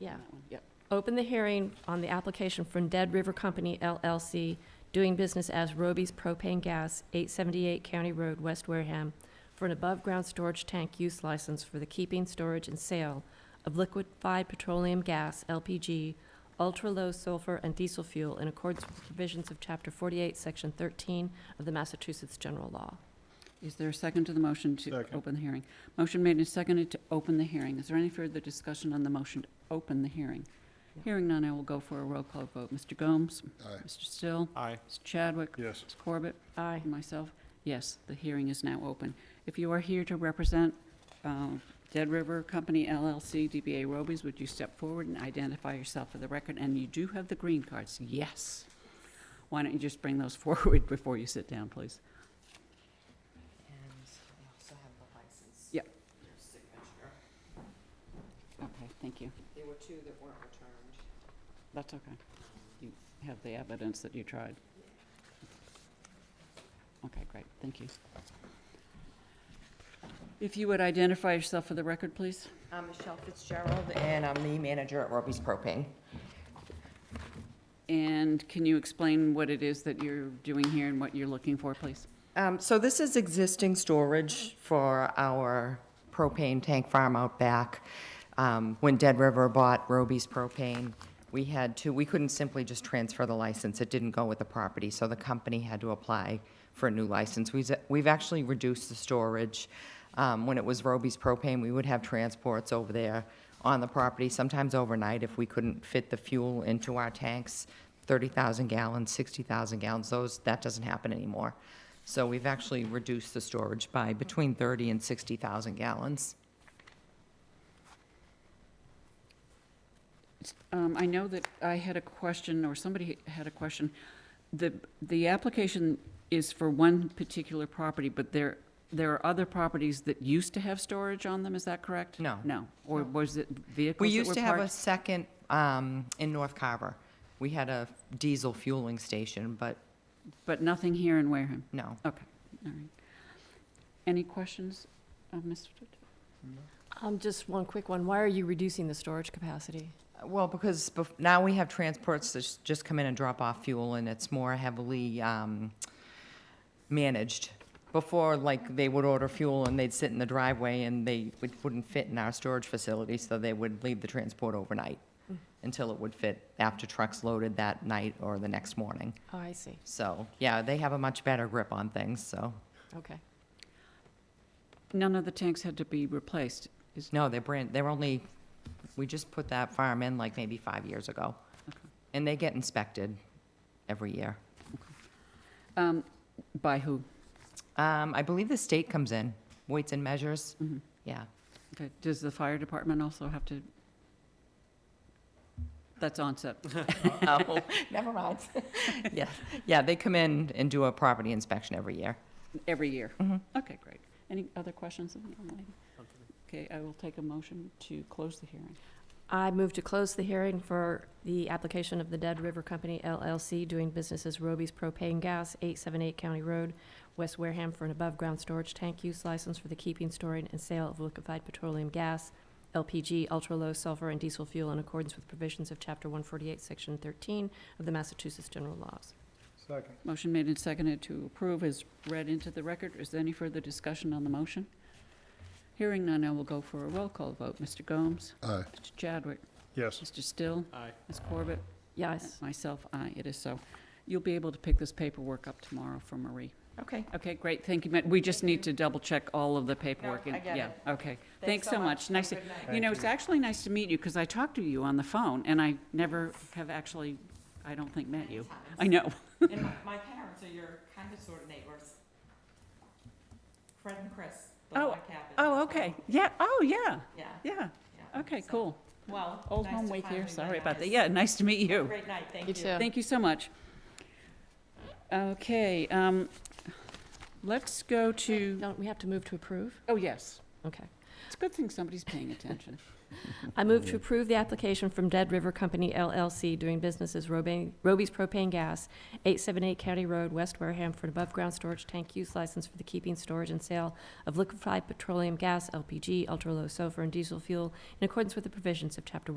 Yeah. that one. Yep. Open the hearing on the application from Dead River Company LLC, doing business as Roby's Propane Gas, 878 County Road, West Wareham, for an above-ground storage tank use license for the keeping, storage, and sale of liquefied petroleum gas, LPG, ultra-low sulfur and diesel fuel in accordance with the provisions of Chapter 48, Section 13 of the Massachusetts General Law. Is there a second to the motion to Second. open the hearing? Motion made and seconded to open the hearing. Is there any further discussion on the motion to open the hearing? No. Hearing none, I will go for a roll call vote. Mr. Gomes? Aye. Mr. Still? Aye. Mr. Chadwick? Yes. Ms. Corbett? Aye. And myself, yes, the hearing is now open. If you are here to represent um, Dead River Company LLC, DBA Robies, would you step forward and identify yourself for the record? And you do have the green cards, yes. Why don't you just bring those forward before you sit down, please? And I also have the license. Yep. Your signature. Okay, thank you. There were two that weren't returned. That's okay. You have the evidence that you tried. Okay, great, thank you. If you would identify yourself for the record, please? I'm Michelle Fitzgerald, and I'm the manager at Roby's Propane. And can you explain what it is that you're doing here and what you're looking for, please? Um, So this is existing storage for our propane tank farm out back. Um, When Dead River bought Roby's Propane, we had to, we couldn't simply just transfer the license. It didn't go with the property, so the company had to apply for a new license. We've we've actually reduced the storage. Um, When it was Roby's Propane, we would have transports over there on the property, sometimes overnight if we couldn't fit the fuel into our tanks, 30,000 gallons, 60,000 gallons, those, that doesn't happen anymore. So we've actually reduced the storage by between 30 and 60,000 gallons. Um, I know that I had a question, or somebody had a question. The, the application is for one particular property, but there, there are other properties that used to have storage on them, is that correct? No. No, or was it vehicles We that used were to have a parked? second um, in North Carver. We had a diesel fueling station, but But nothing here in Wareham? no. Okay, all right. Any questions, uh, Ms.? Um, Just one quick one. Why are you reducing the storage capacity? Well, because bef- now we have transports that s- just come in and drop off fuel, and it's more heavily um, managed. Before, like, they would order fuel and they'd sit in the driveway and they would- wouldn't fit in our storage facility, so they would leave the transport overnight until it would fit after trucks loaded that night or the next morning. Oh, I see. So, yeah, they have a much better grip on things, so. Okay. None of the tanks had to be replaced, is, No, they're brand, they're only, we just put that farm in like maybe five years ago. Okay. And they get inspected every year. um, by who? Um, I believe the state comes in, weights and measures, Mhm. yeah. Okay, does the fire department also have to? That's onset. Oh, never mind. Yeah, yeah, they come in and do a property inspection every year. Every year? Mhm. Okay, great. Any other questions? of the young lady? Okay, I will take a motion to close the hearing. I move to close the hearing for the application of the Dead River Company LLC doing business as Roby's Propane Gas, 878 County Road, West Wareham, for an above-ground storage tank use license for the keeping, storing, and sale of liquefied petroleum gas, LPG, ultra-low sulfur, and diesel fuel in accordance with provisions of Chapter 148, Section 13 of the Massachusetts General Laws. Second. Motion made and seconded to approve is read into the record. Is there any further discussion on the motion? Hearing none, I will go for a roll call vote. Mr. Gomes? Aye. Mr. Chadwick? Yes. Mr. Still? Aye. Ms. Corbett? Yes. Myself, aye, it is so. You'll be able to pick this paperwork up tomorrow for Marie. Okay. Okay, great, thank you. Ma- We just need to double-check all of the paperwork. and- I get Yeah, it. okay. Thanks so much. Nice, to- Have a good you know, it's actually nice to meet you, because I talked to you on the phone, and I never have actually, I don't think, met you. I know. And my- my parents are your kind of sort of neighbors. Fred and Chris, the Oh, log cabin. Oh, okay, yeah, oh, yeah, Yeah, yeah, yeah. okay, So, cool. Well. Old nice home to week here, finally sorry meet about that. us. Yeah, nice to meet you. Great night, thank You you. too. Thank you so much. Okay, um, let's go to, Don't we have to move to approve? oh, yes. Okay. It's a good thing somebody's paying attention. I move to approve the application from Dead River Company LLC doing business as Robe- Roby's Propane Gas, 878 County Road, West Wareham, for an above-ground storage tank use license for the keeping, storage, and sale of liquefied petroleum gas, LPG, ultra-low sulfur, and diesel fuel in accordance with the provisions of Chapter